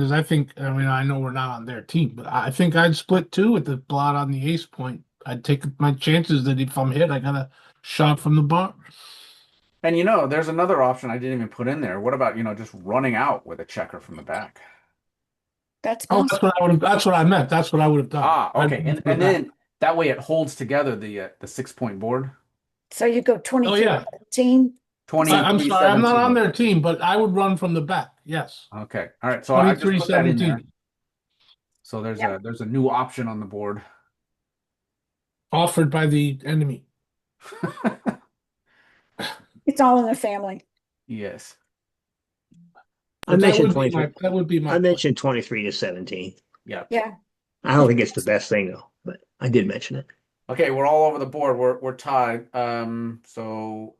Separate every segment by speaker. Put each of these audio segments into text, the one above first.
Speaker 1: Because I think, I mean, I know we're not on their team, but I think I'd split two with the blot on the ace point. I'd take my chances that if I'm hit, I got a shot from the bar.
Speaker 2: And you know, there's another option I didn't even put in there. What about, you know, just running out with a checker from the back?
Speaker 3: That's
Speaker 1: Oh,
Speaker 3: possible.
Speaker 1: that's what I would. That's what I meant. That's what I would have done.
Speaker 2: Ah,
Speaker 1: I'd-
Speaker 2: okay. And, and then that way it holds together the uh, the six point board.
Speaker 3: So you go
Speaker 1: Oh
Speaker 3: twenty-three,
Speaker 1: yeah,
Speaker 3: seventeen,
Speaker 2: Twenty.
Speaker 1: I, am sorry, I'm not on
Speaker 2: 17.
Speaker 1: their team, but I would run from the back. Yes,
Speaker 2: Okay. All right. So Oh, I
Speaker 1: twenty-three
Speaker 2: just put that in there.
Speaker 1: seventeen
Speaker 2: So there's a there's a new option on the board.
Speaker 1: offered by the enemy.
Speaker 3: it's all in the family.
Speaker 2: yes.
Speaker 1: But
Speaker 4: I
Speaker 1: that
Speaker 4: mentioned
Speaker 1: would be my-
Speaker 4: twenty-three.
Speaker 1: That would be my.
Speaker 4: I mentioned twenty-three to seventeen.
Speaker 2: Yeah.
Speaker 3: Yeah.
Speaker 4: I don't think it's the best thing though, but I did mention it.
Speaker 2: Okay, we're all over the board. We're we're tied. Um, so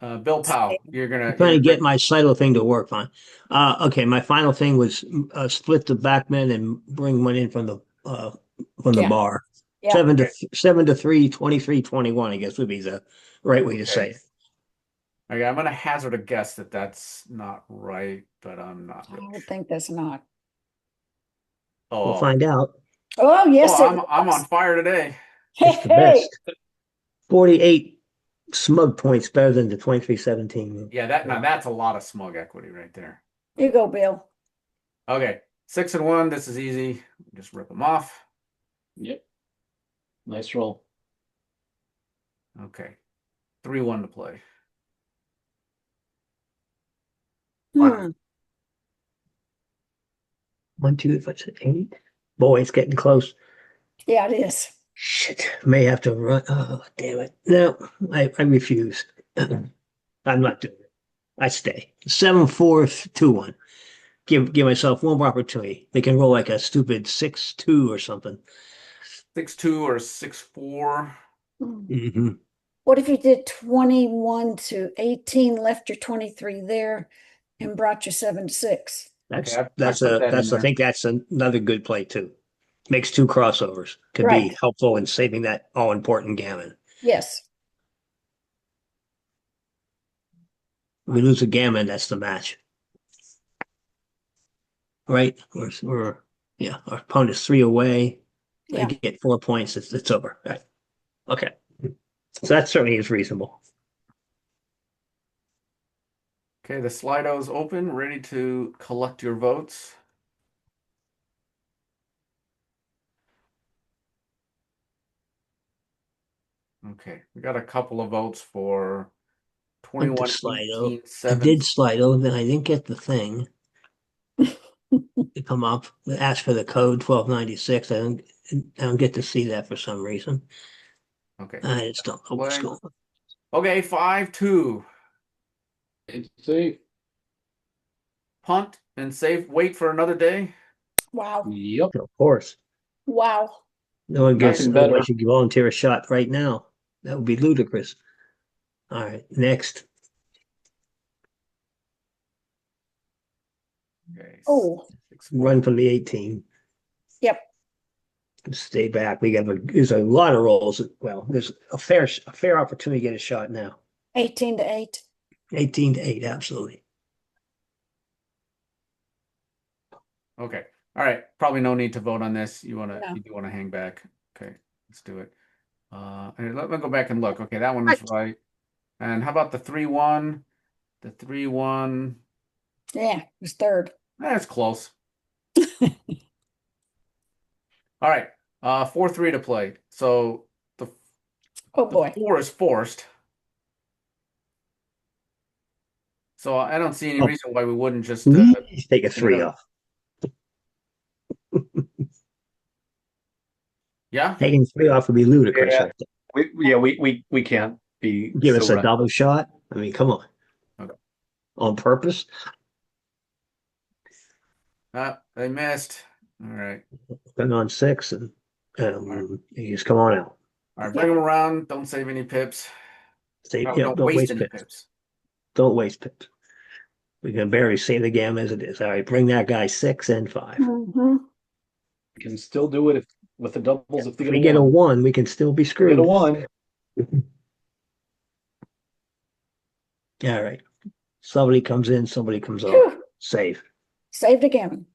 Speaker 2: uh Bill Powell, you're gonna
Speaker 4: I'm trying to
Speaker 2: you're
Speaker 4: get
Speaker 2: gonna-
Speaker 4: my Slido thing to work on. Uh, okay, my final thing was uh, split the backman and bring one in from the uh, from the
Speaker 3: Yeah.
Speaker 4: bar.
Speaker 3: Yeah.
Speaker 4: Seven to seven to three, twenty-three, twenty-one. I guess would be the right way to say it.
Speaker 2: okay, I'm gonna hazard a guess that that's not right, but I'm not
Speaker 3: I
Speaker 2: really
Speaker 3: would
Speaker 2: sure.
Speaker 3: think that's not.
Speaker 2: Oh,
Speaker 4: We'll find out.
Speaker 3: Oh, yes.
Speaker 2: oh,
Speaker 3: it
Speaker 2: I'm I'm
Speaker 3: was.
Speaker 2: on fire today.
Speaker 4: It's the
Speaker 3: Hey,
Speaker 4: best. Forty-eight smug points better than the twenty-three, seventeen.
Speaker 2: Yeah, that now that's a lot of smug equity right there.
Speaker 3: you go, Bill.
Speaker 2: Okay, six and one. This is easy. Just rip them off.
Speaker 5: Yep. Nice roll.
Speaker 2: Okay, three one to play.
Speaker 3: Hmm.
Speaker 4: One, two, if I said eight. Boy, it's getting close.
Speaker 3: Yeah, it is.
Speaker 4: Shit, may have to run. Oh, damn it. No, I, I refuse. I'm not doing it. I stay. Seven, four, th- two, one. Give give myself one more opportunity. They can roll like a stupid six, two or something.
Speaker 2: Six two or six four.
Speaker 3: Hmm.
Speaker 4: Mm-hmm.
Speaker 3: What if you did twenty-one to eighteen, left your twenty-three there and brought your seven to six?
Speaker 4: That's
Speaker 2: Okay, I- I
Speaker 4: that's
Speaker 2: put
Speaker 4: a
Speaker 2: that in
Speaker 4: that's I
Speaker 2: there.
Speaker 4: think that's another good play too. Makes two crossovers. Could
Speaker 3: Right.
Speaker 4: be helpful in saving that all important gammon.
Speaker 3: Yes,
Speaker 4: We lose a gammon, that's the match. Right? We're, we're yeah, our opponent is three away. They
Speaker 3: Yeah.
Speaker 4: get four points. It's, it's over. Right. Okay. So that certainly is reasonable.
Speaker 2: Okay, the Slido's open, ready to collect your votes. Okay, we got a couple of votes for
Speaker 4: Went to
Speaker 2: 21,
Speaker 4: Slido.
Speaker 2: 18,
Speaker 4: I
Speaker 2: 7.
Speaker 4: did Slido, then I didn't get the thing. to come up, It asked for the code 1296. I don't, I don't get to see that for some reason.
Speaker 2: Okay,
Speaker 4: I just don't know what's
Speaker 2: Why?
Speaker 4: going on.
Speaker 2: okay, 5 2.
Speaker 5: Eight, two.
Speaker 2: Punt and save, wait for another day.
Speaker 3: wow,
Speaker 5: Yep.
Speaker 4: Of course.
Speaker 3: wow.
Speaker 4: No one gets,
Speaker 5: Nothing better.
Speaker 4: nobody should volunteer a shot right now. That would be ludicrous. All right, next.
Speaker 2: Okay, s-
Speaker 3: Oh,
Speaker 2: six, four.
Speaker 4: run from the 18.
Speaker 3: Yep.
Speaker 4: Stay back. We have a there's a lot of rolls. Well, there's a fair a fair opportunity to get a shot now.
Speaker 3: 18 to eight.
Speaker 4: 18 to 8, absolutely.
Speaker 2: Okay, all right, probably no need to vote on this. You wanna,
Speaker 3: No.
Speaker 2: you do wanna hang back. Okay, let's do it. Uh, and let me go back and look. Okay, that one was right. And how about the three one? The three one,
Speaker 3: Yeah, it was third.
Speaker 2: that's close. All right, uh, four three to play. So the
Speaker 3: Oh,
Speaker 2: the
Speaker 3: boy.
Speaker 2: four is forced. So I don't see any
Speaker 4: Oh. Mm-hmm.
Speaker 2: reason why we wouldn't just, uh,
Speaker 4: Please Take a 3
Speaker 2: yeah.
Speaker 4: off.
Speaker 2: yeah?
Speaker 4: Taking 3 off would be ludicrous.
Speaker 6: Yeah.
Speaker 4: I think.
Speaker 6: We, yeah, we, we, we can't be.
Speaker 4: Give us
Speaker 6: so
Speaker 4: a
Speaker 6: ra-
Speaker 4: double shot. I mean, come on.
Speaker 2: Okay.
Speaker 4: On purpose.
Speaker 2: Uh, they missed. All right.
Speaker 4: Been on 6 and um, you just come on out.
Speaker 2: All right, bring them around. Don't save any pips.
Speaker 4: Say,
Speaker 2: No,
Speaker 4: yeah,
Speaker 2: don't,
Speaker 4: don't
Speaker 2: waste,
Speaker 4: waste
Speaker 2: any
Speaker 4: pick.
Speaker 2: pips.
Speaker 4: Don't waste pips. We can barely save the game as it is. All right, bring that guy six and five.
Speaker 3: Mhm.
Speaker 5: You Can still do it if, with the doubles if they
Speaker 4: If we get a
Speaker 5: one.
Speaker 4: one, we can still be
Speaker 5: Get
Speaker 4: screwed.
Speaker 5: a
Speaker 4: All
Speaker 5: one.
Speaker 4: right. Somebody comes in, somebody comes off.
Speaker 3: Phew,
Speaker 4: Save.
Speaker 3: Saved again.